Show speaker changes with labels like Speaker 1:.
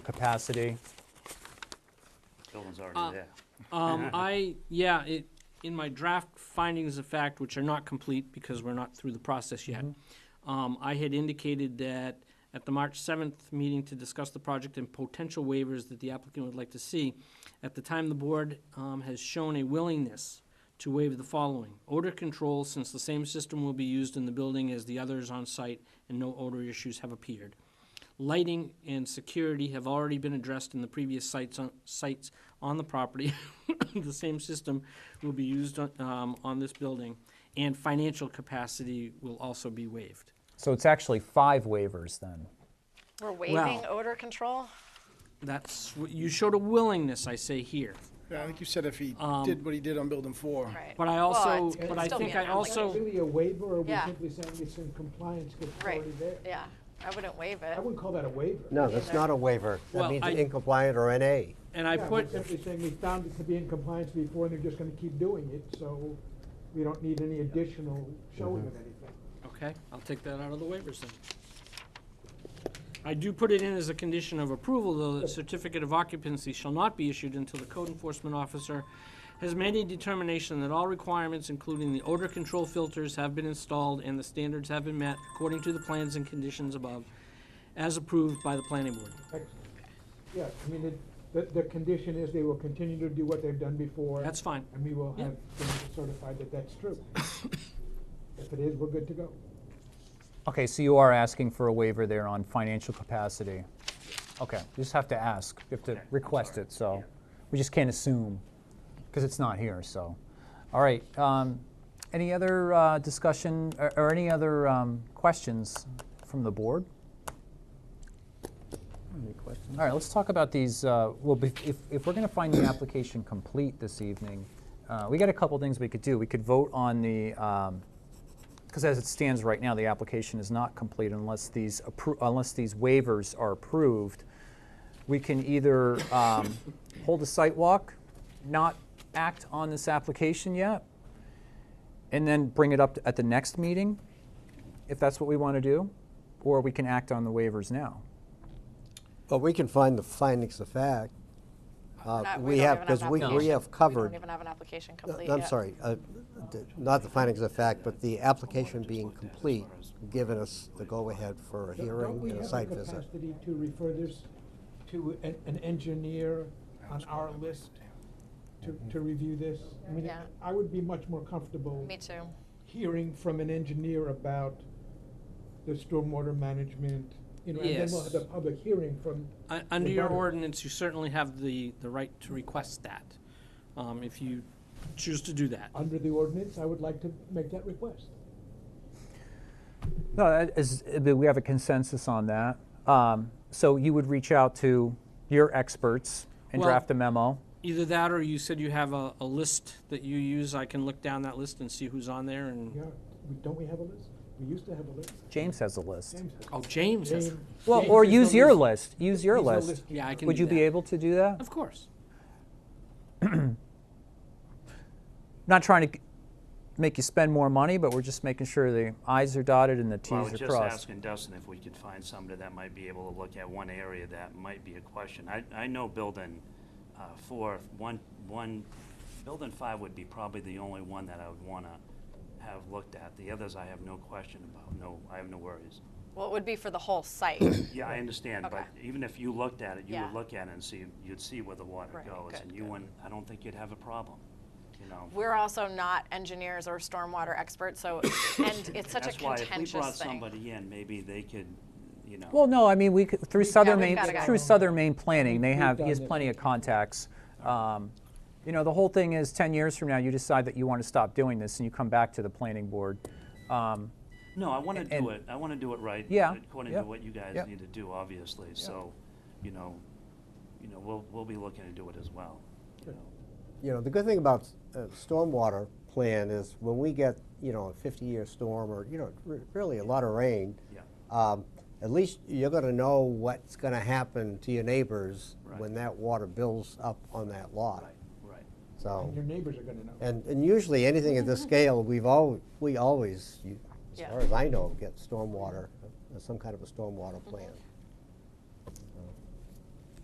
Speaker 1: capacity?
Speaker 2: Building's
Speaker 3: Uh,
Speaker 2: already there.
Speaker 4: Um, I, yeah, it, in my draft findings of fact, which are not complete because we're not through the process yet, um, I had indicated that at the March seventh meeting to discuss the project and potential waivers that the applicant would like to see, at the time, the board, um, has shown a willingness to waive the following. Odor control, since the same system will be used in the building as the others on site and no odor issues have appeared. Lighting and security have already been addressed in the previous sites on, sites on the property. The same system will be used on, um, on this building, and financial capacity will also be waived.
Speaker 1: So it's actually five waivers then.
Speaker 3: We're waiving odor control?
Speaker 4: That's, what- you showed a willingness, I say here.
Speaker 5: Yeah, I think you said if he did what he did on building four.
Speaker 3: Right.
Speaker 4: But I
Speaker 3: Well,
Speaker 4: also-
Speaker 3: it's- it
Speaker 4: but
Speaker 3: would
Speaker 4: I
Speaker 3: still be
Speaker 4: think
Speaker 3: an
Speaker 4: I also-
Speaker 3: application.
Speaker 6: Really a waiver, or we
Speaker 3: Yeah.
Speaker 6: simply saying it's in compliance because it's
Speaker 3: Right,
Speaker 6: already there?
Speaker 3: yeah. I wouldn't waive it.
Speaker 6: I wouldn't call that a waiver.
Speaker 7: No, that's not a waiver.
Speaker 4: Well,
Speaker 7: That means
Speaker 4: I-
Speaker 7: incompliant or NA.
Speaker 4: And I
Speaker 6: Yeah,
Speaker 4: put,
Speaker 6: We're simply saying we found it to be in compliance before, and they're just gonna keep doing it, so we don't need any additional showing of anything.
Speaker 4: okay, I'll take that out of the waivers then. I do put it in as a condition of approval, though, that certificate of occupancy shall not be issued until the code enforcement officer has made a determination that all requirements, including the odor control filters, have been installed and the standards have been met according to the plans and conditions above, as approved by the planning board.
Speaker 6: Excellent. Yeah, I mean, it- the, the condition is they will continue to do what they've done before.
Speaker 4: That's fine.
Speaker 6: And we will
Speaker 4: Yeah.
Speaker 6: have things certified that that's true. If it is, we're good to go.
Speaker 1: Okay, so you are asking for a waiver there on financial capacity. Okay, you just have to ask, you have to
Speaker 2: I'm
Speaker 1: request
Speaker 2: sorry.
Speaker 1: it, so we just can't assume because it's not here, so. All right, um, any other uh, discussion or, or any other um, questions from the board? All right, let's talk about these, uh, well, bef- if, if we're going to find the application complete this evening, uh, we got a couple things we could do. We could vote on the, um, because as it stands right now, the application is not complete unless these, appro- unless these waivers are approved. We can either um, hold a site walk, not act on this application yet, and then bring it up at the next meeting, if that's what we want to do, or we can act on the waivers now.
Speaker 7: But we can find the findings of fact. Uh,
Speaker 3: Not-
Speaker 7: We
Speaker 3: don't
Speaker 7: have,
Speaker 3: even an
Speaker 7: because we,
Speaker 3: application.
Speaker 7: we have
Speaker 3: We don't
Speaker 7: covered,
Speaker 3: even have an application
Speaker 7: uh,
Speaker 3: complete
Speaker 7: I'm
Speaker 3: yet.
Speaker 7: sorry, uh, d- not the findings of fact, but the application being complete, given us the go-ahead for a
Speaker 6: Don't-
Speaker 7: hearing and a site
Speaker 6: Don't we have
Speaker 7: visit.
Speaker 6: the capacity to refer this to an, an engineer on our list to, to review this? I mean,
Speaker 3: Yeah.
Speaker 6: I would be much more comfortable
Speaker 3: Me too.
Speaker 6: hearing from an engineer about the stormwater management, you know, and then we'll have the
Speaker 4: Yes.
Speaker 6: public hearing from,
Speaker 4: Un- Under your
Speaker 6: Rebuttal.
Speaker 4: ordinance, you certainly have the, the right to request that, um, if you choose to do that.
Speaker 6: under the ordinance, I would like to make that request.
Speaker 1: No, that is, uh, we have a consensus on that. Um, So you would reach out to your experts and
Speaker 4: Well-
Speaker 1: draft a memo?
Speaker 4: Either that, or you said you have a, a list that you use. I can look down that list and see who's on there
Speaker 6: Yeah,
Speaker 4: and,
Speaker 6: we- don't we have a list? We used to have a list.
Speaker 1: James has a list.
Speaker 6: James has-
Speaker 4: oh, James. has-
Speaker 6: James-
Speaker 1: Well,
Speaker 6: James
Speaker 1: or
Speaker 6: is the
Speaker 1: use your list, use your
Speaker 6: He's the
Speaker 1: list.
Speaker 6: keeper.
Speaker 4: Yeah, I can
Speaker 1: Would
Speaker 4: do
Speaker 1: you be
Speaker 4: that.
Speaker 1: able to do that?
Speaker 4: Of course.
Speaker 1: Not trying to g- make you spend more money, but we're just making sure the i's are dotted and the t's
Speaker 2: Well, I was
Speaker 1: are
Speaker 2: just
Speaker 1: crossed.
Speaker 2: asking Dustin if we could find somebody that might be able to look at one area that might be a question. I, I know building uh, four, one, one, building five would be probably the only one that I would want to have looked at. The others I have no question about, no, I have no worries.
Speaker 3: Well, it would be for the whole site.
Speaker 2: Yeah, I understand, but
Speaker 3: Okay.
Speaker 2: even if you looked at it, you
Speaker 3: Yeah.
Speaker 2: would look at it and see, you'd see where the water
Speaker 3: Right,
Speaker 2: goes.
Speaker 3: good,
Speaker 2: And you
Speaker 3: good.
Speaker 2: wouldn't, I don't think you'd have a problem, you know?
Speaker 3: We're also not engineers or stormwater experts, so, and it's such
Speaker 2: That's why
Speaker 3: a
Speaker 2: if we brought
Speaker 3: contentious thing.
Speaker 2: somebody in, maybe they could, you know.
Speaker 1: Well, no, I mean, we, could- through Southern
Speaker 3: we've
Speaker 1: Maine,
Speaker 3: got a guy.
Speaker 1: through Southern Maine Planning, they
Speaker 6: We've
Speaker 1: have, he
Speaker 6: done
Speaker 1: has
Speaker 6: this.
Speaker 1: plenty of contacts. Um, You know, the whole thing is 10 years from now, you decide that you want to stop doing this and you come back to the planning board. Um,
Speaker 2: No, I want to
Speaker 1: and-
Speaker 2: do it, I want to do it right. uh,
Speaker 1: Yeah,
Speaker 2: According
Speaker 1: yeah,
Speaker 2: to what you guys
Speaker 1: yeah.
Speaker 2: need to do, obviously, so, you know, you know, we'll, we'll be looking to do it as well, you know.
Speaker 7: You know, the good thing about uh, stormwater plan is when we get, you know, a 50-year storm or, you know, re- really a lot of rain,
Speaker 2: Yeah.
Speaker 7: um, at least you're going to know what's going to happen to your neighbors
Speaker 2: Right.
Speaker 7: when that water builds up on that lot.
Speaker 2: Right, right.
Speaker 7: So,
Speaker 6: And your neighbors are gonna know.
Speaker 7: and, and usually anything at this scale, we've al, we always, you- as
Speaker 3: Yeah.
Speaker 2: Mm-hmm.
Speaker 7: far as I know, get stormwater, uh, some kind of a stormwater plan.